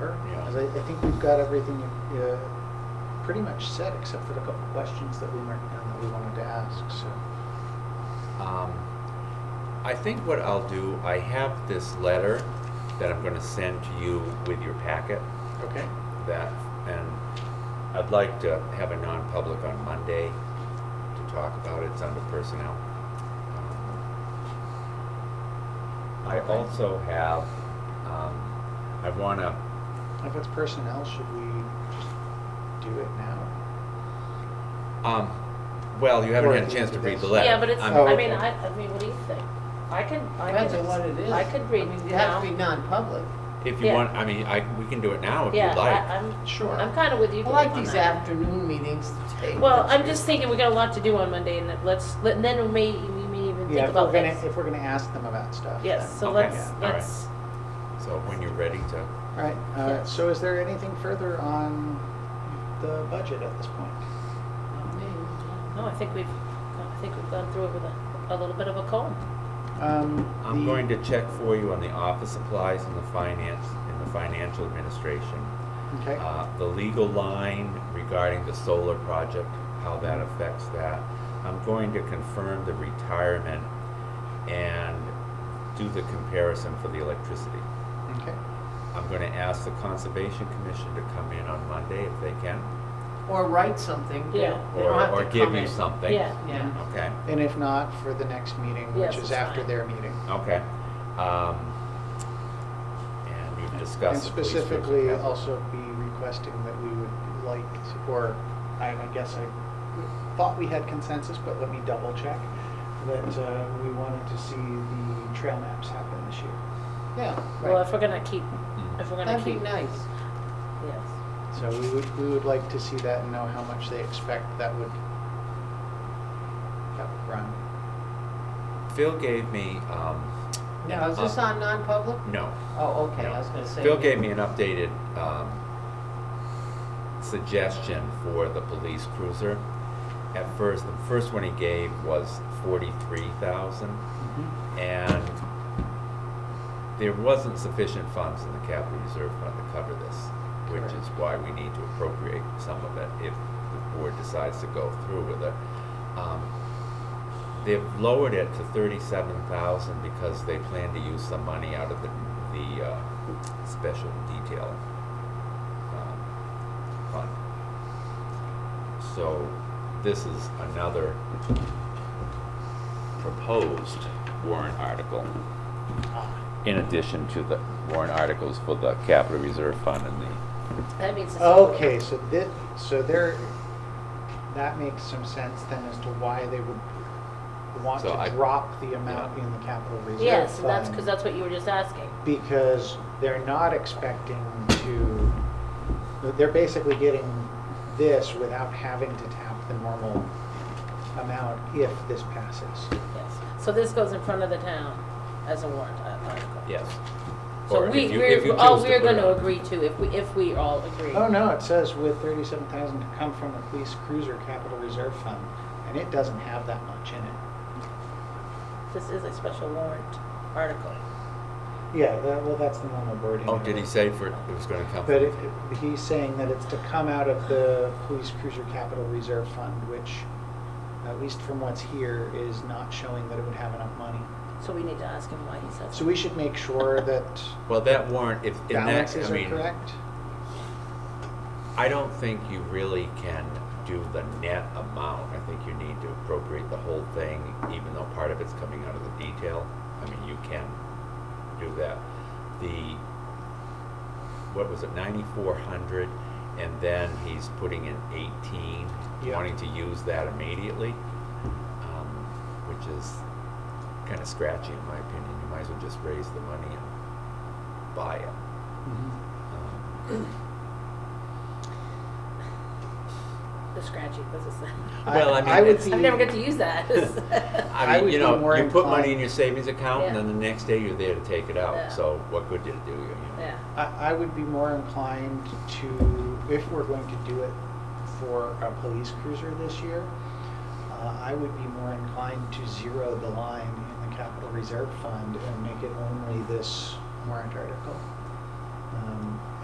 Because I, I think we've got everything uh, pretty much set, except for a couple questions that we marked down that we wanted to ask, so. Um, I think what I'll do, I have this letter that I'm gonna send to you with your packet Okay. that, and I'd like to have a non-public on Monday to talk about it, it's under personnel. Um, I Okay. also have, um, I wanna, If it's personnel, should we just do it now? um, well, you haven't Or had at a the chance end to of read the this. letter. Yeah, but it's, I'm- Oh, I mean, okay. I, I mean, what do you think? I can, I can. Depends on what it is. I could read I mean, You now. have to be non-public. If you yeah. want, I mean, I, we can do it now Oh, if you'd Yeah, like. I, I'm, Sure. I'm kind of with you. I like Dave, on these that. afternoon meetings. take Well, I'm pictures. just thinking, we got a lot to do on Monday, and that let's, let- then we may, we may Yeah, even if think we're about gonna, this. if we're gonna ask them about stuff. Yes, so Okay, let's, all right. let's, So when you're ready to, All right, Yeah. uh, so is there anything further on the budget at this point? Not me. no, I think we've, I think we've gone through it with a, a little bit of a comb. Um, I'm the- going to check for you on the office supplies and the finance, and the financial administration. Okay, Uh, The legal line regarding the solar project, how that affects that. I'm going to confirm the retirement and do the comparison for the electricity. okay, I'm going to ask the Conservation Commission to come in on Monday if they can, Or write something. They Yeah. don't- they or, don't have or to give come you in. something. Yeah. Yeah. Okay. and if not, for the next meeting, Yes, which is it's after fine. their meeting. Okay. Um, And we've discussed. the And police cruiser specifically, cap. also be requesting that we would like, to- or I I guess I thought we had consensus, but let me double check, that uh, we wanted to see the trail maps happen this year. Yeah, Well, Right. if we're gonna keep, Mm. if we're gonna that'd be keep, yes. nice. So we would, we would like to see that and know how much they expect that would, that would run. Phil gave me, um, Now, is this Uh, on non-public? no. Oh, okay, no. I was gonna say. Phil gave me an updated, um, suggestion for the police cruiser. At first, the first one he gave was forty-three thousand, Mm-hmm. and there wasn't sufficient funds in the capital reserve fund to cover this, which Correct. is why we need to appropriate some of it if the board decides to go through with it. Um, They've lowered it to thirty-seven thousand because they plan to use some money out of the, the, uh, special detail, um, fund. So this is another proposed warrant article in addition to the warrant articles for the capital reserve fund and the, That means. it's- Okay, so this, so there, that makes some sense then as to why they would want So I- to drop the amount in the capital reserve fund. Yes, and that's, because that's what you were just asking. because they're not expecting to, they're basically getting this without having to tap the normal amount if this passes. Yes, so this goes in front of the town as a warrant article. yes. Or So if we, you- if you we're, all choose to we're put it gonna on. agree to, if we, if we all agree. Oh, no, it says with thirty-seven thousand to come from the police cruiser capital reserve fund, and it doesn't have that much in it. This is a special warrant article. Yeah, that, well, that's the normal wording. Oh, of did he it. say for, it was gonna come? But it, it- he's saying that it's to come out of the police cruiser capital reserve fund, which, at least from what's here, is not showing that it would have enough money. So we need to ask him why he says. So we should make sure that Well, that warrant, if, in that, balances I are mean, correct? I don't think you really can do the net amount. I think you need to appropriate the whole thing, even though part of it's coming out of the detail. I mean, you can do that. The, what was it, ninety-four hundred, and then he's putting in eighteen, Yeah. wanting to use that immediately, um, which is kinda scratchy in my opinion. You might as well just raise the money and buy it. Mm-hmm. Um, The scratchy, what's it say? Well, I mean, would it's- be- I never get to use that. I I mean, would you be know, more you put money inclined- in your savings account, and Yeah. then the next day you're there to take it Yeah. out, so what good did it do you? you? know? Yeah, I, I would be more inclined to, if we're going to do it for a police cruiser this year, uh, I would be more inclined to zero the line in the capital reserve fund and make it only this warrant article. Um,